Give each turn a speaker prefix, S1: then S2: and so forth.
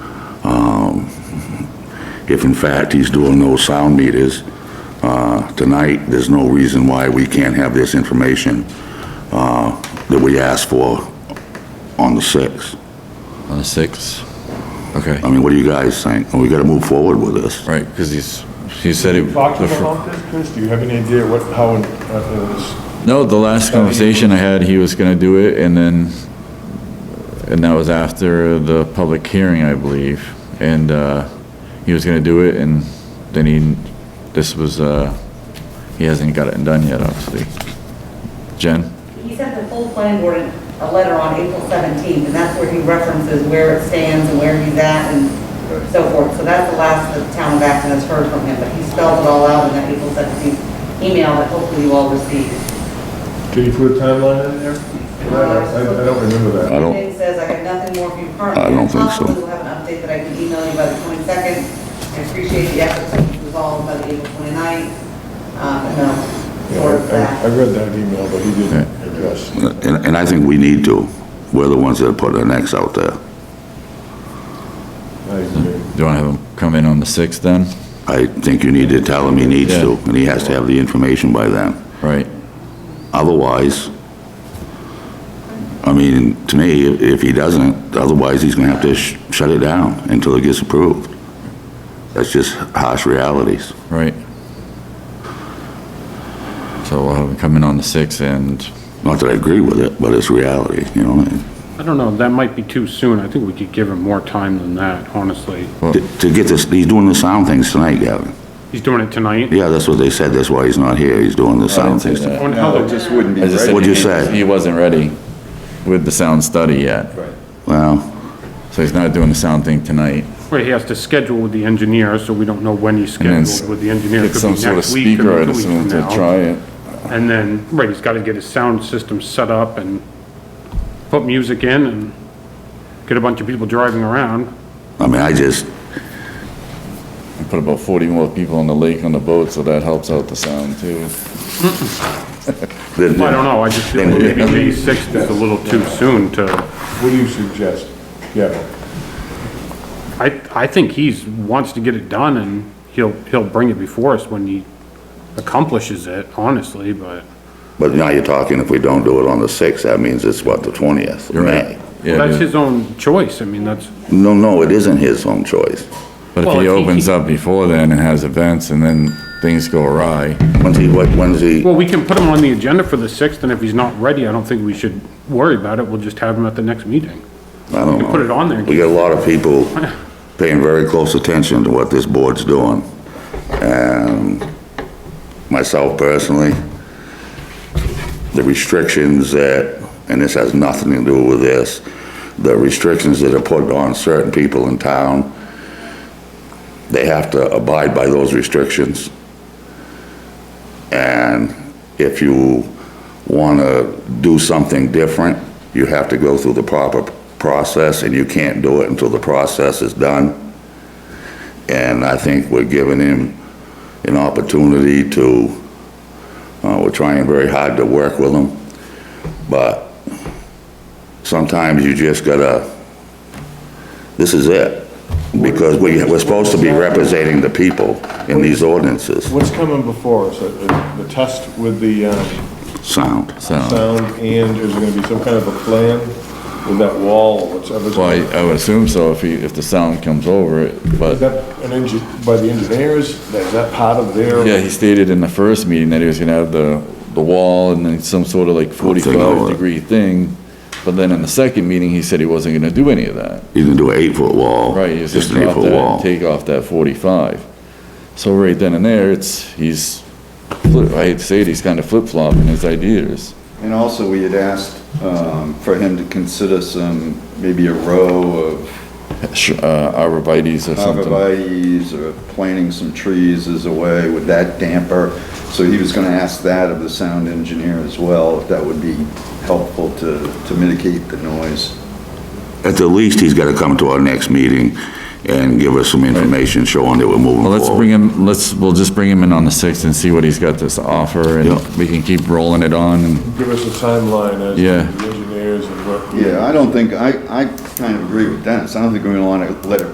S1: if in fact he's doing those sound meters uh, tonight, there's no reason why we can't have this information uh, that we asked for on the 6th.
S2: on the 6th? Okay,
S1: I mean, what do you guys think? We gotta move forward with this.
S2: right, because he's, he said he...
S3: Talk to them about this, Chris? Do you have any idea what, how, it- uh, is
S2: No, the last conversation I had, he was gonna do it, and then, and that was after the public hearing, I believe. And, uh, he was gonna do it, and then he, this was, uh, he hasn't got it done yet, obviously. Jen?
S4: He sent the full planning board a letter on April 17th, and that's where he references where it stands and where he's at and so forth. So that's the last the town of Acton has heard from him, but he spelled it all out in that April 17th email that hopefully you all received.
S3: Did you put a timeline in there? I I don't remember that.
S1: I don't-
S4: It says, I got nothing more for you currently.
S1: I don't think so.
S4: Possibly we'll have an update that I can email you by the 22nd. I appreciate the effort to resolve by the April 29th. Um, and then
S3: Yeah,
S4: sort of
S3: I- I
S4: that.
S3: I read that email, but he didn't address.
S1: And, and I think we need to. We're the ones that are putting the necks out there.
S3: I agree.
S2: Do you wanna have him come in on the sixth then?
S1: I think you need to tell him he needs to, and he has to have the information by then.
S2: Right,
S1: Otherwise, I mean, to me, if- if he doesn't, otherwise he's gonna have to sh- shut it down until it gets approved. That's just harsh realities.
S2: right. So we'll have him come in on the sixth and,
S1: Not that I agree with it, but it's reality, you know?
S5: I don't know, that might be too soon. I think we could give him more time than that, honestly.
S1: To to get this, he's doing the sound things tonight, Gavin.
S5: He's doing it tonight. Oh,
S1: Yeah, that's what they said, that's why he's not here, he's doing the sound things.
S5: I wonder how the-
S6: wouldn't be
S2: I just said
S1: What'd you
S2: he-
S1: say?
S2: He wasn't ready with the sound study yet,
S1: Well,
S2: so he's not doing the sound thing tonight.
S5: Right, he has to schedule with the engineer, so we don't know when he's
S2: then s-
S5: scheduled with the engineer.
S2: Get
S5: Could
S2: some
S5: be
S2: sort of
S5: next week, could be
S2: speaker, I'd
S5: two weeks
S2: assume, to
S5: from now.
S2: try it.
S5: And then, right, he's got to get his sound system set up and put music in and get a bunch of people driving around.
S1: I mean, I just,
S2: We Put about 40 more people on the lake on the boat, so that helps out the sound too.
S1: I
S5: I don't know, I just feel maybe May 6th is a little too soon to,
S3: What do you suggest, Gavin?
S5: I, I think he's, wants to get it done and he'll, he'll bring it before us when he accomplishes it, honestly, but.
S1: But now you're talking, if we don't do it on the 6th, that means it's what, the 20th? of
S2: You're
S1: May?
S2: right. Yeah, it
S5: That's
S2: is.
S5: his own choice, I mean, that's,
S1: No, no, it isn't his own choice.
S2: but
S5: Well,
S2: if
S5: if
S2: he
S5: he-
S2: opens up before then and has events and then things go awry,
S1: When's he, what, when's he,
S5: well, we can put him on the agenda for the 6th, and if he's not ready, I don't think we should worry about it, we'll just have him at the next meeting.
S1: I don't know.
S5: put it on there.
S1: We got a lot of people paying very close attention to what this board's doing. And myself personally, the restrictions that, and this has nothing to do with this, the restrictions that are put on certain people in town, they have to abide by those restrictions. And if you want to do something different, you have to go through the proper process, and you can't do it until the process is done. And I think we're giving him an opportunity to, uh, we're trying very hard to work with him, but sometimes you just gotta, this is it. Because we, we're supposed to be representing the people in these ordinances.
S3: What's coming before us? Uh, uh, The test with the um,
S1: Sound.
S2: so,
S3: sound and is there going to be some kind of a plan with that wall or whatever's?
S2: well, I- I would assume so if he, if the sound comes over it,
S3: Is
S2: but,
S3: that an engi, by the engineers? Is that part of their?
S2: yeah, he stated in the first meeting that he was gonna have the, the wall and then some sort of like
S1: over
S2: 45
S1: it.
S2: degree thing, but then in the second meeting, he said he wasn't gonna do any of that.
S1: You can do an eight-foot wall.
S2: Right, you just
S1: Just an
S2: drop
S1: eight-foot
S2: that,
S1: wall.
S2: take off that 45. So right then and there, it's, he's, flip- I hate to say it, he's kind of flip-flopping his ideas.
S6: And also, we had asked um, for him to consider some, maybe a row of
S2: Sh- uh, Arborvitae's or something.
S6: arborvitae's or planting some trees as a way, would that damper? So he was gonna ask that of the sound engineer as well, if that would be helpful to, to mitigate the noise.
S1: At the least, he's got to come to our next meeting and give us some information showing that we're moving
S2: Well,
S1: forward.
S2: let's bring him, let's, we'll just bring him in on the 6th and see what he's got to offer,
S1: Yeah.
S2: and we can keep rolling it on. and-
S3: Give us a timeline as to
S2: Yeah.
S3: the engineers and what.
S6: Yeah, I don't think, I, I kind of agree with Dennis, I don't think we wanna let it